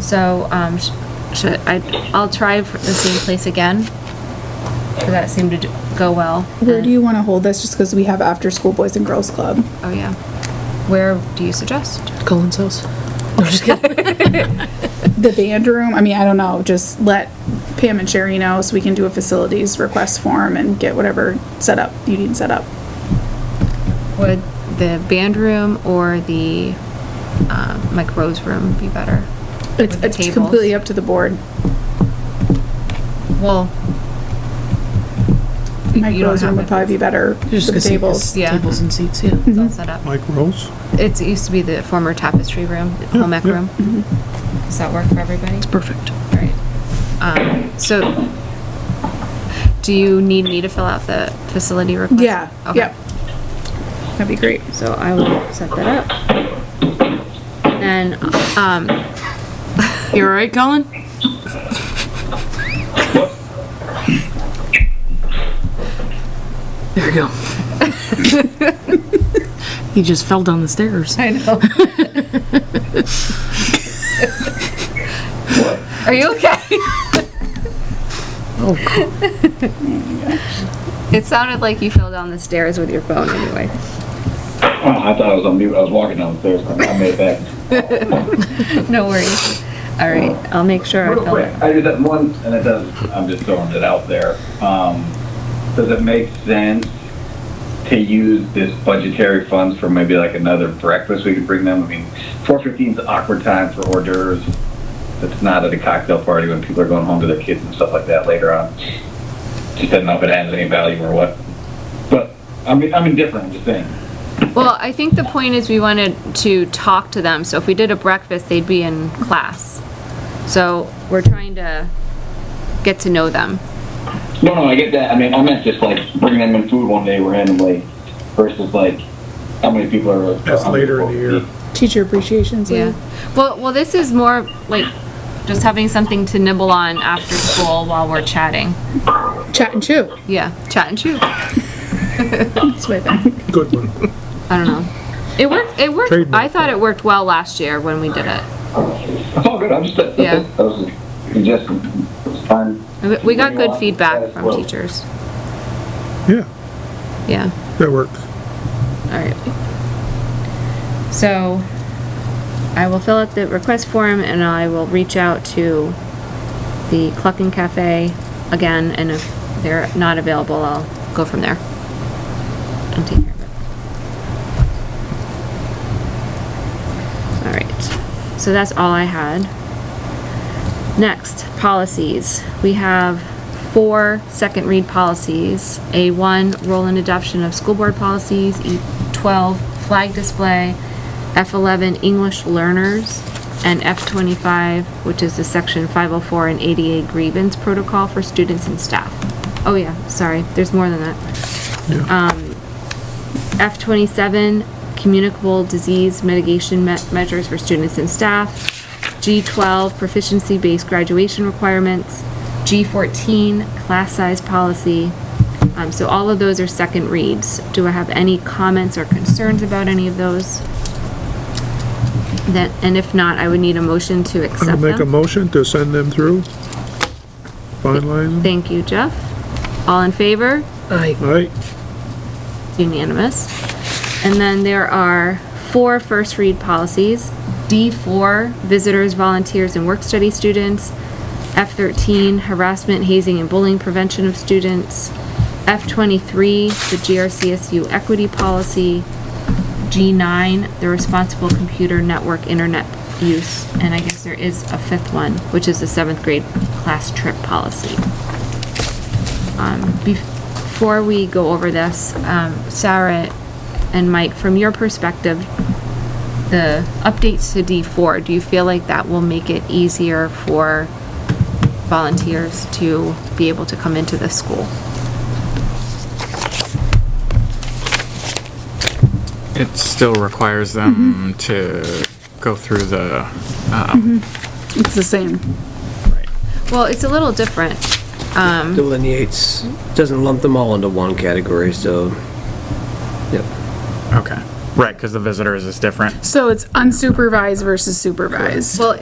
So, um, sh- should, I, I'll try for the same place again. 'Cause that seemed to do- go well. Where do you want to hold this? Just because we have after school boys and girls club. Oh, yeah. Where do you suggest? Colin's house. I'm just kidding. The band room. I mean, I don't know. Just let Pam and Sherry know so we can do a facilities request form and get whatever set up you need set up. Would the band room or the, um, like Rose room be better? It's, With the it's tables? completely up to the board. Well, Mike you don't Rose room have would it. probably be better. Just with the tables. Yeah. Tables and seats, yeah. it's all set up. Mike Rose? It's, it used to be the former tapestry room, the home ec mm-hmm. yeah. room. Does that work for everybody? Perfect. All right. Um, so, do you need me to fill out the facility request? Yeah. Okay. Yep. That'd be great. So I will set that up. And, um, You all right, Colin? There you go. He just fell down the stairs. I know. Are you okay? Oh, It sounded like you fell down the stairs with your phone anyway. Oh, I thought I was on mute. I was walking down the stairs. I made it back. No worries. All right, I'll make sure I Real fill quick, it. I did that once, and it does. I'm just throwing it out there. Um, does it make sense to use this budgetary funds for maybe like another breakfast? We could bring them. I mean, 4:15 is an awkward time for hors d'oeuvres. It's not at a cocktail party when people are going home to their kids and stuff like that later on. Just doesn't know if it adds any value or what. But I mean, I'm indifferent. I'm just saying. Well, I think the point is we wanted to talk to them, so if we did a breakfast, they'd be in class. So we're trying to get to know them. No, no, I get that. I mean, I meant just like bringing them in food one day randomly versus like how many people are. That's how many later in the people- year. Teacher appreciation. Yeah. Well, well, this is more like just having something to nibble on after school while we're chatting. Chat and chew. Yeah, chat and chew. I That's what I think. Good one. don't know. It worked. It worked. I Trademark thought it worked well last year when we did it. It's all good. I'm just. That's Yeah. yeah. That was just it's fun. We- We got good feedback As from well. teachers. Yeah, Yeah. that works. All right. So I will fill out the request form and I will reach out to the Cluckin Cafe again. And if they're not available, I'll go from there. I'll take care of it. All right. So that's all I had. Next, policies. We have four second read policies. A1, roll and adoption of school board policies, E12, flag display, F11, English learners, and F25, which is the section 504 and ADA grievance protocol for students and staff. Oh yeah, sorry, there's more than that. F27, communicable disease mitigation me- measures for students and staff. G12, proficiency-based graduation requirements. G14, class size policy. Um, so all of those are second reads. Do I have any comments or concerns about any of those? That, and if not, I would need a motion to I'll accept make a them. motion to send them through. Finalize them. Thank you, Jeff. All in favor? I All right, unanimous. And then there are four first read policies. D4, visitors, volunteers, and work study students. F13, harassment, hazing, and bullying prevention of students. F23, the GRCSU equity policy. G9, the responsible computer network internet use. And I guess there is a fifth one, which is the seventh grade class trip policy. Um, Before we go over this, um, Sarah and Mike, from your perspective, the updates to D4, do you feel like that will make it easier for volunteers to be able to come into the school? It still requires them to go through the, It's the same. Well, it's a little different. delineates, doesn't lump them all into one category, so, yep. okay, right, because the visitors is different. So it's unsupervised versus supervised. Well,